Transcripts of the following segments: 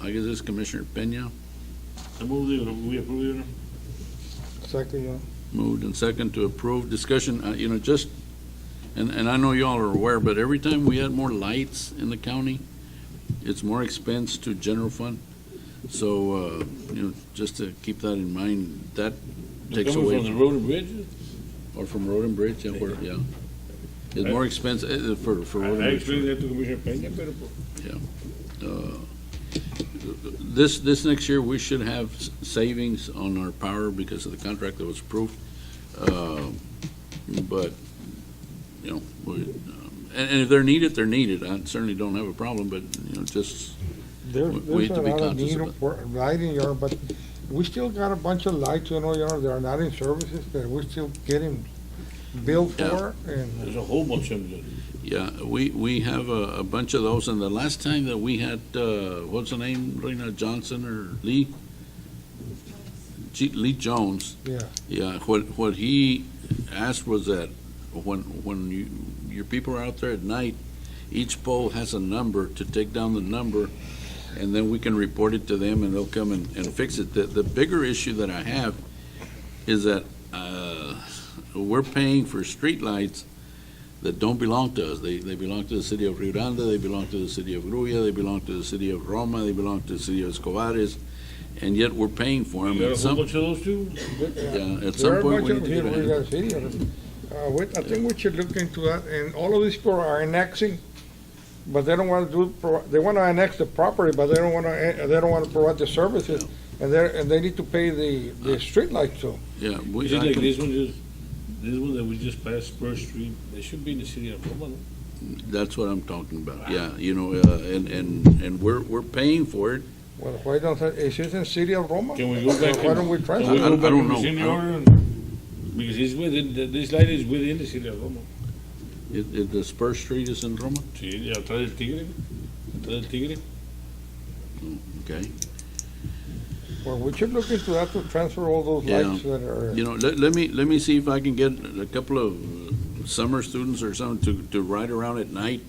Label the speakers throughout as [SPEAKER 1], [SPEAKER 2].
[SPEAKER 1] I guess this Commissioner Pena
[SPEAKER 2] I move that we approve it.
[SPEAKER 3] Second, Your Honor.
[SPEAKER 1] moved and second to approve. Discussion, uh, you know, just, and, and I know y'all are aware, but every time we add more lights in the county, it's more expense to general fund. So, uh, you know, just to keep that in mind, that takes away.
[SPEAKER 2] Coming from the road and bridges?
[SPEAKER 1] Or from Road and Bridge, yeah, where- yeah. It's more expensive, uh, for, for
[SPEAKER 2] I
[SPEAKER 1] Road
[SPEAKER 2] I
[SPEAKER 1] and
[SPEAKER 2] explained
[SPEAKER 1] Bridge.
[SPEAKER 2] that to Commissioner Peña, but
[SPEAKER 1] Uh, This, this next year, we should have s- savings on our power because of the contract that was approved. Uh, But, you know, we, um, and, and if they're needed, they're needed. I certainly don't have a problem, but, you know, just,
[SPEAKER 3] There-
[SPEAKER 1] We- we
[SPEAKER 3] There's
[SPEAKER 1] have
[SPEAKER 3] a
[SPEAKER 1] to be
[SPEAKER 3] lot of
[SPEAKER 1] conscious
[SPEAKER 3] need
[SPEAKER 1] of it.
[SPEAKER 3] for lighting, Your Honor, but we still got a bunch of lights, you know, Your Honor, that are not in services, that we're still getting billed
[SPEAKER 1] Yeah.
[SPEAKER 3] for, and
[SPEAKER 2] there's a whole bunch of them.
[SPEAKER 1] yeah, we, we have a, a bunch of those. And the last time that we had, uh, what's the name, Reina Johnson or Lee? G- Lee Jones.
[SPEAKER 3] Yeah.
[SPEAKER 1] Yeah, what, what he asked was that when, when you, your people are out there at night, each pole has a number to take down the number, and then we can report it to them and they'll come and, and fix it. The, the bigger issue that I have is that, uh, we're paying for streetlights that don't belong to us. They, they belong to the city of Rio Grande, they belong to the city of Gruya, they belong to the city of Roma, they belong to the city of Escobares, and yet we're paying for them.
[SPEAKER 2] You got a whole bunch of those too?
[SPEAKER 1] Yeah, at
[SPEAKER 3] There
[SPEAKER 1] some
[SPEAKER 3] are
[SPEAKER 1] point,
[SPEAKER 3] much
[SPEAKER 1] we
[SPEAKER 3] of
[SPEAKER 1] need to
[SPEAKER 3] here
[SPEAKER 1] get a handle.
[SPEAKER 3] in Rio Grande City, uh, we- I think we should look into that, and all of these people are annexing, but they don't want to do, pro- they want to annex the property, but they don't want to, they don't want to provide the services, and they're, and they need to pay the, the
[SPEAKER 1] Ah.
[SPEAKER 3] streetlights too.
[SPEAKER 1] Yeah, we,
[SPEAKER 2] Is it
[SPEAKER 1] I
[SPEAKER 2] like
[SPEAKER 1] can-
[SPEAKER 2] this one, just, this one that we just passed, First Street, it should be in the city of Roma, no?
[SPEAKER 1] that's what I'm talking about, yeah, you know, uh, and, and, and we're, we're paying for it.
[SPEAKER 3] Well, why don't, is it in city of Roma?
[SPEAKER 2] Can we go back?
[SPEAKER 3] Why don't we
[SPEAKER 2] and-
[SPEAKER 3] try
[SPEAKER 2] can
[SPEAKER 3] that?
[SPEAKER 2] we
[SPEAKER 1] I- I
[SPEAKER 2] go back
[SPEAKER 1] don't
[SPEAKER 2] and
[SPEAKER 1] know.
[SPEAKER 2] rescind
[SPEAKER 1] I
[SPEAKER 2] the
[SPEAKER 1] don't-
[SPEAKER 2] order? and- Because it's within, the- this light is within the city of Roma.
[SPEAKER 1] It, it, the Spur Street is in Roma,
[SPEAKER 2] Sí, atrás del tigre, atrás del tigre.
[SPEAKER 1] okay?
[SPEAKER 3] Well, we should look into that to transfer all those
[SPEAKER 1] Yeah.
[SPEAKER 3] lights that are,
[SPEAKER 1] You know, let, let me, let me see if I can get a couple of summer students or something to, to ride around at night,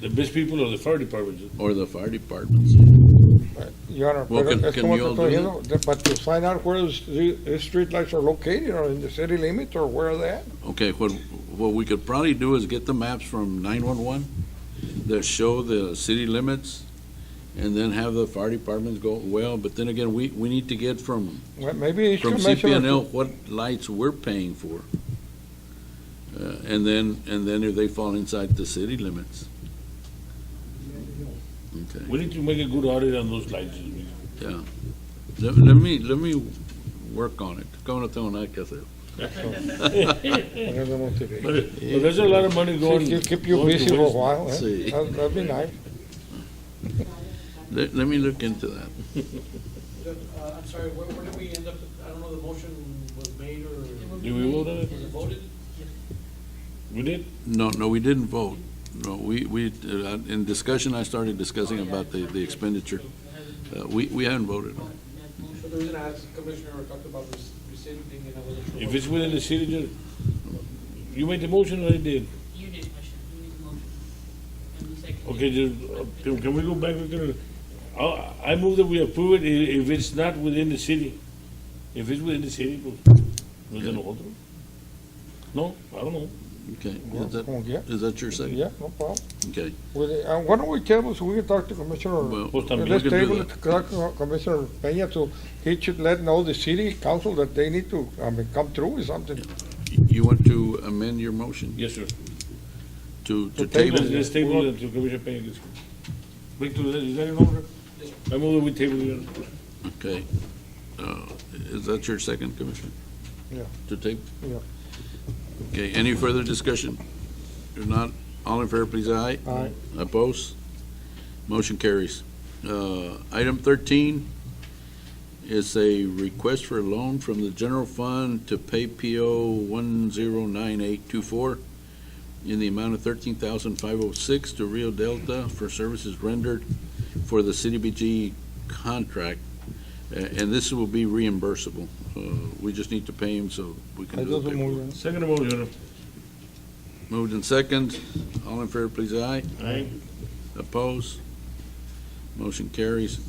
[SPEAKER 2] The best people are the fire departments.
[SPEAKER 1] or the fire departments.
[SPEAKER 3] uh, Your Honor,
[SPEAKER 1] Well,
[SPEAKER 3] pero
[SPEAKER 1] can-
[SPEAKER 3] es
[SPEAKER 1] can
[SPEAKER 3] como
[SPEAKER 1] you
[SPEAKER 3] te
[SPEAKER 1] all
[SPEAKER 3] estoy
[SPEAKER 1] do
[SPEAKER 3] diciendo, the- but to find out where those, the the streetlights are located, or in the city limit, or where they at.
[SPEAKER 1] Okay, what, what we could probably do is get the maps from nine-one-one that show the city limits, and then have the fire departments go, well, but then again, we, we need to get from
[SPEAKER 3] Well, Maybe each
[SPEAKER 1] from
[SPEAKER 3] commissioner,
[SPEAKER 1] CPNL what lights we're paying for. Uh, And then, and then if they fall inside the city limits. Okay,
[SPEAKER 2] We need to make a good audit on those lights. you know.
[SPEAKER 1] yeah. Let, let me, let me work on it. Como no tengo nada que hacer.
[SPEAKER 3] I don't know what to do.
[SPEAKER 2] But but there's a lot of money going.
[SPEAKER 3] Keep- Keep you
[SPEAKER 2] going to
[SPEAKER 3] busy for a
[SPEAKER 2] waste.
[SPEAKER 3] while, eh?
[SPEAKER 1] Sí.
[SPEAKER 3] That- That'd be nice.
[SPEAKER 1] Let, let me look into that.
[SPEAKER 4] Uh, I'm sorry, where, where did we end up, I don't know, the motion was made or?
[SPEAKER 2] Did we vote on it?
[SPEAKER 4] Was it voted?
[SPEAKER 2] We did?
[SPEAKER 1] No, no, we didn't vote. No, we, we, uh, in discussion, I started discussing
[SPEAKER 3] Oh,
[SPEAKER 1] about the, the expenditure. Uh, We, we haven't voted on it.
[SPEAKER 4] But the reason I asked Commissioner talked about res- rescinding and I wasn't sure.
[SPEAKER 2] If
[SPEAKER 4] what-
[SPEAKER 2] it's within the city, ju- you made the motion or I did?
[SPEAKER 5] You did, Commissioner, you made the motion. And you seconded.
[SPEAKER 2] Okay, just, uh, can can we go back? We can- I I move that we approve it i- if it's not within the city. If it's within the city, pues, no es de nosotros. No, I don't know.
[SPEAKER 1] Okay, is that,
[SPEAKER 3] Como quiera.
[SPEAKER 1] is that your second?
[SPEAKER 3] Yeah, no problem.
[SPEAKER 1] Okay,
[SPEAKER 3] With the- uh, Why don't we table, so we can talk to Commissioner,
[SPEAKER 1] well,
[SPEAKER 2] Pues también
[SPEAKER 3] let's
[SPEAKER 1] we can do
[SPEAKER 3] table it
[SPEAKER 1] that.
[SPEAKER 3] to talk to Commissioner Peña, so he should let know the city council that they need to, I mean, come through with something.
[SPEAKER 1] you want to amend your motion
[SPEAKER 2] Yes, sir.
[SPEAKER 1] to, to
[SPEAKER 3] To
[SPEAKER 1] table?
[SPEAKER 3] table
[SPEAKER 2] Let's let's table it to Commissioner Peña. gets it. Back to, the- is that in order? I move that we table it.
[SPEAKER 1] Okay. Uh, Is that your second, Commissioner?
[SPEAKER 3] Yeah.
[SPEAKER 1] To take?
[SPEAKER 3] Yeah.
[SPEAKER 1] Okay, any further discussion? If not, all in favor, please, aye.
[SPEAKER 3] Aye.
[SPEAKER 1] Oppose? Motion carries. Uh, Item 13 is a request for a loan from the general fund to pay PO 1098824 in the amount of 13506 to Rio Delta for services rendered for the CDBG contract. A- And this will be reimbursable. Uh, We just need to pay him so we
[SPEAKER 3] I
[SPEAKER 1] can do
[SPEAKER 3] just
[SPEAKER 1] the paperwork.
[SPEAKER 3] move,
[SPEAKER 2] Second motion.
[SPEAKER 1] Moved in second. All in favor, please, aye.
[SPEAKER 2] Aye.
[SPEAKER 1] Opposed? Motion carries.